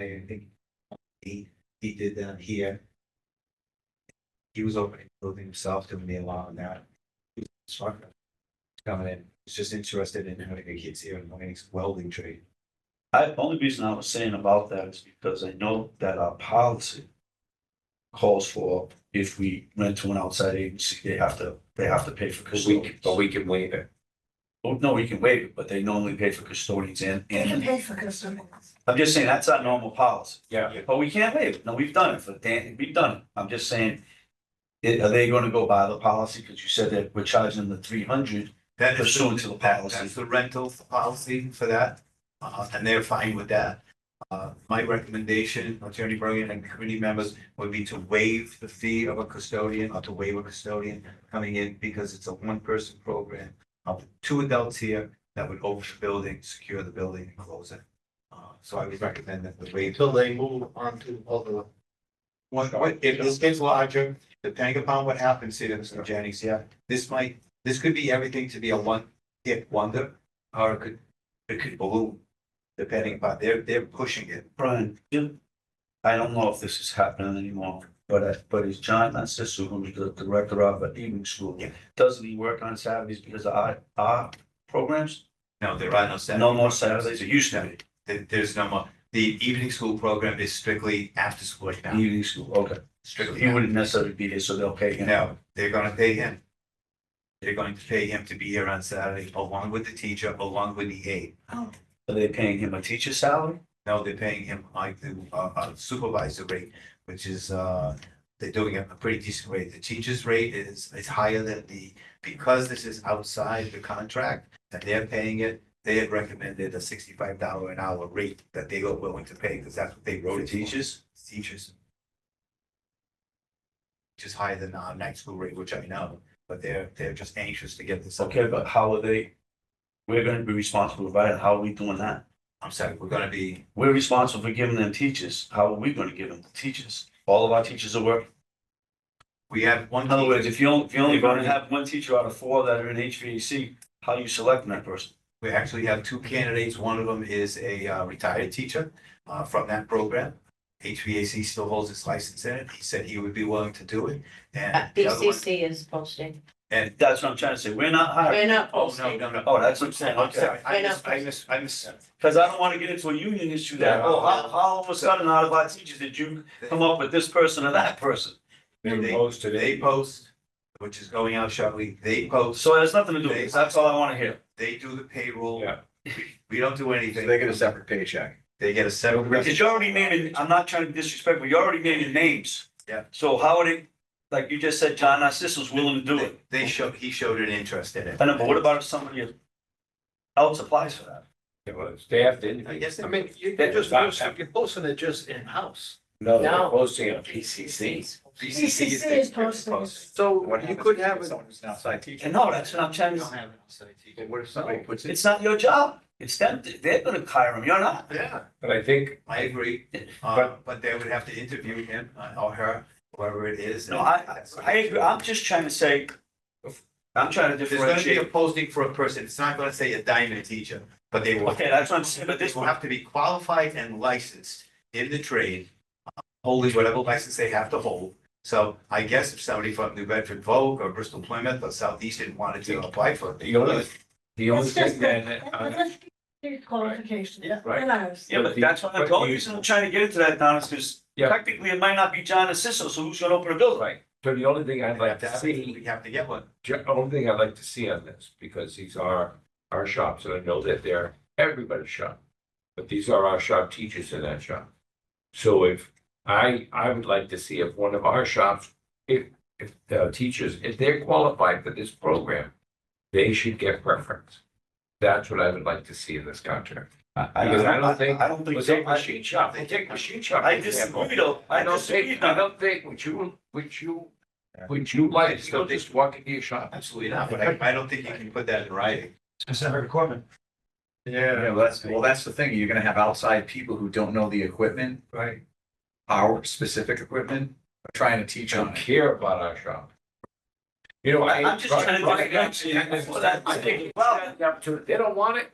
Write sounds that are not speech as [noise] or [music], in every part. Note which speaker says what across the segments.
Speaker 1: I think he, he did them here. He was opening the building himself, doing the alarm and that. He was smart. Coming in, he's just interested in having the kids here and learning his welding trade.
Speaker 2: I, only reason I was saying about that is because I know that our policy. Calls for if we rent to an outside agency, they have to, they have to pay for custodians.
Speaker 1: we can waive it.
Speaker 2: Oh, no, we can waive it, but they normally pay for custodians and,
Speaker 3: They can
Speaker 2: and,
Speaker 3: pay for custodians.
Speaker 2: I'm just saying, that's our normal policy.
Speaker 1: Yeah.
Speaker 2: But we can't waive it. No, we've done it for Dan, we've done it. I'm just saying. i- Are they gonna go by the policy? Cause you said that we're charging the three hundred
Speaker 4: That is,
Speaker 2: pursuant to the
Speaker 4: that's
Speaker 2: policy.
Speaker 4: the rental policy for that, uh, and they're fine with that. Uh, my recommendation, Attorney Bergen and committee members, would be to waive the fee of a custodian or to waive a custodian coming in because it's a one-person program. of two adults here that would open the building, secure the building and close it. Uh, so I would recommend that the waive.
Speaker 5: until they move on to other.
Speaker 4: One, if this gets larger, depending upon what happens here, Mr. Jennings, yeah, this might, this could be everything to be a one hit wonder. Or it could, it could balloon, depending upon, they're, they're pushing it.
Speaker 2: Brian, you- I don't know if this is happening anymore, but, uh, but is John Narciso, who's the director of the evening school,
Speaker 4: Yeah.
Speaker 2: doesn't he work on Saturdays because of our, our programs?
Speaker 4: No, there are no Saturdays.
Speaker 2: No more Saturdays, it used to be,
Speaker 4: There- there's no more. The evening school program is strictly after school now,
Speaker 2: evening school, okay. So
Speaker 4: strictly.
Speaker 2: He wouldn't necessarily be here, so they'll pay him.
Speaker 4: No, they're gonna pay him. They're going to pay him to be here on Saturday along with the teacher, along with the aide.
Speaker 3: Oh,
Speaker 2: Are they paying him a teacher's salary?
Speaker 4: No, they're paying him like the uh, uh, supervisor rate, which is, uh, they're doing it a pretty decent rate. The teacher's rate is, is higher than the, because this is outside the contract and they're paying it, they had recommended a sixty-five dollar an hour rate that they were willing to pay because that's what they wrote
Speaker 2: For
Speaker 4: it for.
Speaker 2: teachers?
Speaker 4: Teachers. Which is higher than our night school rate, which I know, but they're, they're just anxious to get this. up.
Speaker 2: Okay, but how are they? We're gonna be responsible, right? How are we doing that?
Speaker 4: I'm sorry, we're gonna be,
Speaker 2: We're responsible for giving them teachers. How are we gonna give them teachers? All of our teachers are working.
Speaker 4: we have one.
Speaker 2: In other words,
Speaker 4: teacher-
Speaker 2: if you only, if you only gonna have one teacher out of four that are in HVAC, how are you selecting that person?
Speaker 4: We actually have two candidates. One of them is a uh, retired teacher uh, from that program. HVAC still holds his license in it. He said he would be willing to do it.
Speaker 3: Uh,
Speaker 4: And the other one,
Speaker 6: BCC is posting.
Speaker 2: That's what I'm trying to say. We're not hiring.
Speaker 6: We're not
Speaker 4: oh, no,
Speaker 6: posting.
Speaker 4: no, no.
Speaker 2: Oh, that's what I'm saying.
Speaker 4: I'm
Speaker 2: Okay.
Speaker 4: sorry. I miss, I miss, I miss.
Speaker 2: Cause I don't wanna get into a union issue that, oh, how, how all of a sudden out of our teachers did you come up with this person or that person?
Speaker 4: They-
Speaker 1: They posted it.
Speaker 4: They post, which is going out shortly. They post,
Speaker 2: So it has nothing to do with this. That's all I wanna hear.
Speaker 4: they do the payroll.
Speaker 1: Yeah.
Speaker 4: We- We don't do
Speaker 1: So
Speaker 4: anything.
Speaker 1: they get a separate paycheck.
Speaker 4: They get a separate.
Speaker 2: Because you already named, I'm not trying to be disrespectful, you already named names.
Speaker 4: Yeah.
Speaker 2: So how would it, like you just said, John Narcisso's willing to do it.
Speaker 4: They show, he showed an interest in it.
Speaker 2: I know, but what about if somebody else applies for that?
Speaker 1: It was staffed in.
Speaker 4: I guess. they-
Speaker 5: I mean, you-
Speaker 1: That
Speaker 5: you're just,
Speaker 1: does not
Speaker 5: posting- you're posting it just in-house.
Speaker 1: No, they're
Speaker 6: No.
Speaker 1: posting on PCC.
Speaker 4: BCC
Speaker 3: BCC is
Speaker 4: they
Speaker 3: posting.
Speaker 4: post.
Speaker 5: So
Speaker 1: What
Speaker 5: you
Speaker 1: happens
Speaker 5: could
Speaker 1: if
Speaker 5: have it.
Speaker 1: Someone who's an outside teacher.
Speaker 2: And no, that's what I'm trying
Speaker 5: You
Speaker 2: to,
Speaker 5: don't have it outside teaching.
Speaker 1: And what if somebody
Speaker 5: So
Speaker 1: puts it?
Speaker 2: it's not your job. It's them, they're gonna hire him, you're not.
Speaker 5: Yeah,
Speaker 1: But I think,
Speaker 4: I agree, [laughs] uh,
Speaker 1: But-
Speaker 4: but they would have to interview him uh, or her, whoever it is.
Speaker 2: No, I, I agree, I'm just trying to say, I'm trying to
Speaker 4: There's gonna be a
Speaker 2: differentiate.
Speaker 4: posting for a person, it's not gonna say a diamond teacher, but they will.
Speaker 2: Okay, that's what I'm saying, but this
Speaker 4: They will have to be qualified and licensed in the trade, uh, holding whatever license they have to hold. So I guess if somebody from New Bedford Vogue or Bristol Plymouth or Southeastern wanted to apply for it. they
Speaker 1: the only,
Speaker 4: could.
Speaker 1: the only
Speaker 3: It's just
Speaker 1: thing then,
Speaker 3: that-
Speaker 1: uh,
Speaker 3: that's their Qualification.
Speaker 2: Yeah.
Speaker 1: Right.
Speaker 3: And ours.
Speaker 2: Yeah, but that's what, the only reason I'm trying to get into that, Don, is because
Speaker 1: Yeah.
Speaker 2: technically it might not be John Narciso, so who's gonna open a building?
Speaker 1: right, so the only thing I'd
Speaker 4: They have
Speaker 1: like
Speaker 4: to
Speaker 1: to
Speaker 4: have-
Speaker 1: see
Speaker 4: We have to get one.
Speaker 1: The only thing I'd like to see on this, because these are our shops, and I know that they're everybody's shop. But these are our shop teachers in that shop. So if, I, I would like to see if one of our shops, if, if the teachers, if they're qualified for this program, they should get preference. That's what I would like to see in this contract. Because I don't think,
Speaker 2: I don't think
Speaker 1: Well,
Speaker 2: so.
Speaker 1: take machine shop, they take machine shop.
Speaker 2: I
Speaker 1: for example.
Speaker 2: disagree though, I
Speaker 1: I don't think,
Speaker 2: disagree.
Speaker 1: I
Speaker 2: Don.
Speaker 1: don't think, would you, would you, would you like, to just walk into your shop?
Speaker 4: Absolutely not, but I, I don't think you can put that in writing.
Speaker 7: Is that her equipment?
Speaker 5: yeah,
Speaker 7: Yeah, well, that's, well, that's the thing. You're gonna have outside people who don't know the equipment,
Speaker 5: right.
Speaker 7: our specific equipment, trying to teach on
Speaker 1: don't
Speaker 7: it.
Speaker 1: care about our shop. You know, I.
Speaker 2: I'm just trying to
Speaker 1: Right, right,
Speaker 2: differentiate.
Speaker 1: I- I- I think- well, the opportunity- They don't want it.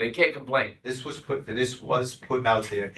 Speaker 1: They can't complain.
Speaker 4: This was put, this was put out there